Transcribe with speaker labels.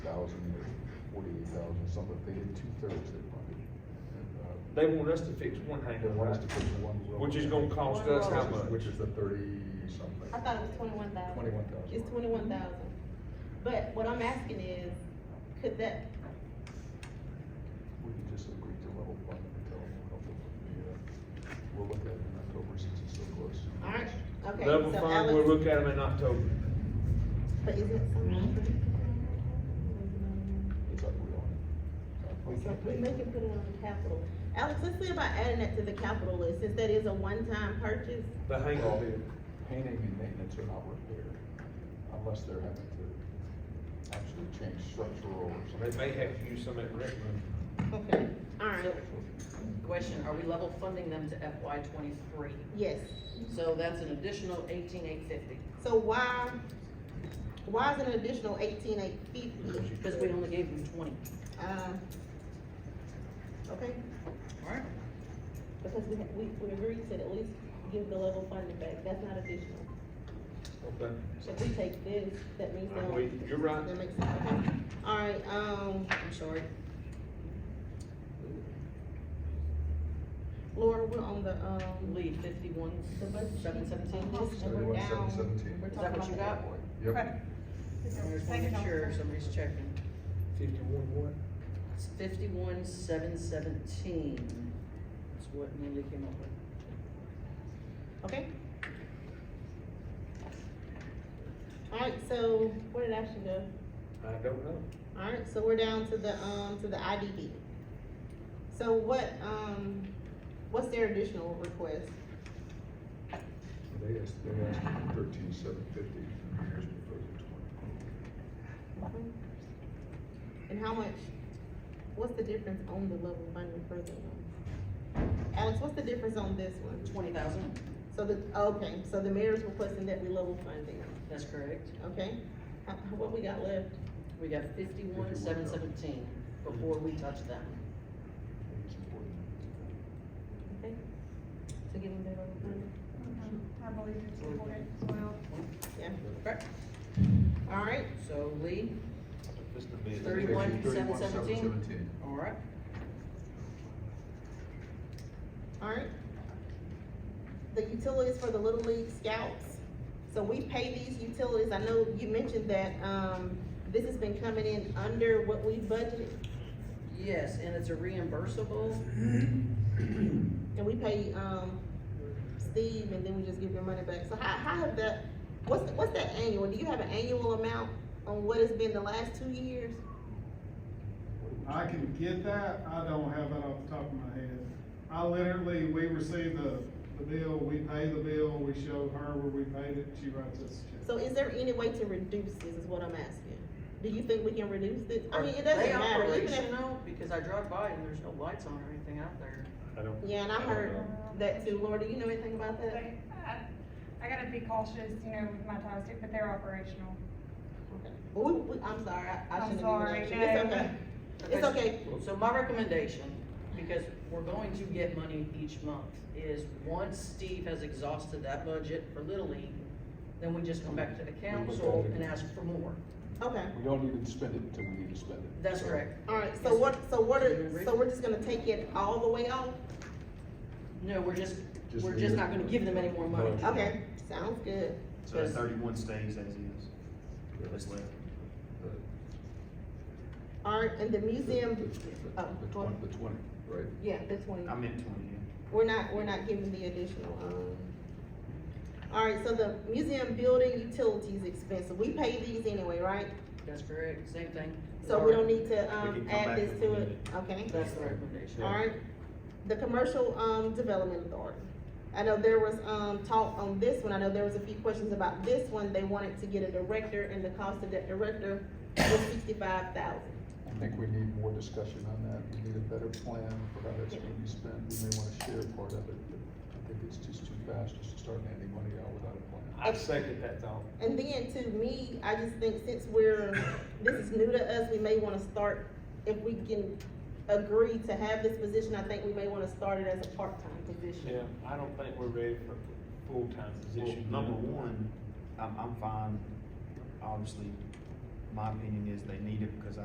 Speaker 1: thousand or forty-eight thousand, something, they did two-thirds their money. Uh,
Speaker 2: They want us to fix one
Speaker 1: They
Speaker 2: hangar,
Speaker 1: want us
Speaker 2: right?
Speaker 1: to put one. row
Speaker 2: Which is
Speaker 1: in.
Speaker 2: gonna cost us how
Speaker 1: Which is-
Speaker 2: much?
Speaker 1: Which is the thirty-something.
Speaker 3: I thought it was twenty-one thousand.
Speaker 1: Twenty-one thousand.
Speaker 3: It's twenty-one thousand. But what I'm asking is, could that,
Speaker 1: We can just agree to level fund and tell them we'll help them with the, uh, we'll look at it in October since it's so close.
Speaker 3: alright, okay.
Speaker 2: Level
Speaker 3: so
Speaker 2: fund,
Speaker 3: Alex-
Speaker 2: we'll look at them in October.
Speaker 3: But is it something?
Speaker 1: It's like we're on
Speaker 3: We
Speaker 1: it.
Speaker 3: make it put it on the capital. Alex, let's see about adding that to the capital list, since that is a one-time purchase.
Speaker 2: The
Speaker 1: Well,
Speaker 2: hangar,
Speaker 1: the painting and maintenance are not repaired unless they're having to actually change structural or
Speaker 2: they
Speaker 1: something.
Speaker 2: may have to use some at rec room.
Speaker 4: Okay,
Speaker 3: Alright,
Speaker 4: question, are we level funding them to FY twenty-three?
Speaker 3: yes.
Speaker 4: So that's an additional eighteen eight fifty,
Speaker 3: So why, why is it an additional eighteen eight fifty?
Speaker 4: because we only gave them twenty.
Speaker 3: Uh, Okay,
Speaker 4: Alright.
Speaker 3: because we, we, we agreed to at least give the level funding back, that's not additional.
Speaker 2: Okay.
Speaker 3: So if we take this, that means
Speaker 2: Uh,
Speaker 3: no.
Speaker 2: we- You're right.
Speaker 3: That makes sense, okay. Alright, um,
Speaker 4: I'm sorry.
Speaker 3: Laura, we're on the, um.
Speaker 4: Lead fifty-one,
Speaker 3: The budget sheet.
Speaker 4: seven seventeen.
Speaker 3: Uh-huh.
Speaker 4: Is
Speaker 3: And
Speaker 1: Seventy-one,
Speaker 3: we're
Speaker 1: seven
Speaker 3: down.
Speaker 1: seventeen.
Speaker 3: We're
Speaker 1: Is
Speaker 4: that what
Speaker 3: talking
Speaker 4: you
Speaker 3: about
Speaker 4: got?
Speaker 1: Yep,
Speaker 4: I just wanna make sure somebody's checking.
Speaker 2: Fifty-one what?
Speaker 4: It's fifty-one seven seventeen. That's what Mandy came up with.
Speaker 3: that. Okay. Alright, so where did Ashton go?
Speaker 2: I don't know.
Speaker 3: Alright, so we're down to the, um, to the IDB. So what, um, what's their additional request?
Speaker 1: they asked, they asked for thirteen, seven fifty, here's proposal twenty.
Speaker 3: And how much, what's the difference on the level funding for the one? Alex, what's the difference on this one?
Speaker 4: Twenty thousand,
Speaker 3: So the, okay, so the mayor's requesting that we level fund them,
Speaker 4: that's correct.
Speaker 3: okay? How- how- What we got left?
Speaker 4: We got fifty-one seven seventeen before we touch them.
Speaker 1: It's important.
Speaker 3: Okay. To give them their level funding?
Speaker 5: Mm-hmm. I believe it's important as well.
Speaker 3: Yeah,
Speaker 4: Correct.
Speaker 3: all right,
Speaker 4: So Lee,
Speaker 2: Just a minute.
Speaker 4: Thirty-one, seven,
Speaker 1: Thirty-one, seven,
Speaker 4: seventeen?
Speaker 1: seventeen.
Speaker 4: alright.
Speaker 3: all right. The utilities for the Little League Scouts, so we pay these utilities, I know you mentioned that, um, this has been coming in under what we budgeted,
Speaker 4: Yes, and it's a reimbursable.
Speaker 3: and we pay, um, Steve, and then we just give your money back, so how, how have that, what's, what's that annual, do you have an annual amount on what it's been the last two years?
Speaker 6: I can get that, I don't have that off the top of my head. I literally, we receive the, the bill, we pay the bill, we show her where we paid it, she writes us a check.
Speaker 3: So is there any way to reduce this, is what I'm asking? Do you think we can reduce this? I mean, it
Speaker 4: Are they
Speaker 3: doesn't matter, even if,
Speaker 4: operational? Because I drive by and there's no lights on or anything out there.
Speaker 2: I don't.
Speaker 3: yeah, and I
Speaker 2: don't
Speaker 3: heard
Speaker 2: know.
Speaker 3: that too, Laura, do you know anything about that?
Speaker 5: Like, I- uh, I gotta be cautious, you know, with my ties, too, but they're operational.
Speaker 3: Well, we, we, I'm sorry, I, I
Speaker 5: I'm
Speaker 3: shouldn't
Speaker 5: sorry,
Speaker 3: have even asked you. it's
Speaker 5: no.
Speaker 3: okay, it's okay,
Speaker 4: So my recommendation, because we're going to get money each month, is once Steve has exhausted that budget for Little League, then we just come back to the council and ask for more.
Speaker 3: okay,
Speaker 1: We don't even spend it until we need to spend it.
Speaker 4: That's
Speaker 1: So,
Speaker 4: correct.
Speaker 3: alright, so what, so what are,
Speaker 4: Yes.
Speaker 3: so we're just gonna take it all the way off?
Speaker 4: No, we're just,
Speaker 1: Just
Speaker 4: we're just
Speaker 1: leave it.
Speaker 4: not gonna give them any more money.
Speaker 3: Okay, sounds good,
Speaker 7: So that thirty-one stays as is. That's left.
Speaker 3: alright, and the
Speaker 1: The-
Speaker 3: museum,
Speaker 1: the- the-
Speaker 3: oh,
Speaker 1: The
Speaker 3: go
Speaker 1: twenty,
Speaker 3: on.
Speaker 1: the twenty, right?
Speaker 3: yeah, the twenty,
Speaker 7: I meant twenty, yeah.
Speaker 3: we're not, we're not giving the additional, um. Alright, so the museum building utilities expense, we pay these anyway, right?
Speaker 4: That's correct, same thing.
Speaker 3: So we don't need to,
Speaker 7: We
Speaker 3: um,
Speaker 7: can come
Speaker 3: add
Speaker 7: back
Speaker 3: this
Speaker 7: if we
Speaker 3: to
Speaker 7: need
Speaker 3: it, okay?
Speaker 4: That's the recommendation.
Speaker 3: Alright, the commercial, um, development authority. I know there was, um, talk on this one, I know there was a few questions about this one, they wanted to get a director, and the cost of that director was sixty-five thousand.
Speaker 1: I think we need more discussion on that, we need a better plan for how that's gonna be spent, we may wanna share part of it, but I think it's just too fast just to start handing money out without a plan.
Speaker 2: I second that thought.
Speaker 3: And then to me, I just think since we're, this is new to us, we may wanna start, if we can agree to have this position, I think we may wanna start it as a part-time position.
Speaker 2: Yeah, I don't think we're ready for full-time position.
Speaker 7: Well, number one, I'm, I'm fine. Obviously, my opinion is they need it because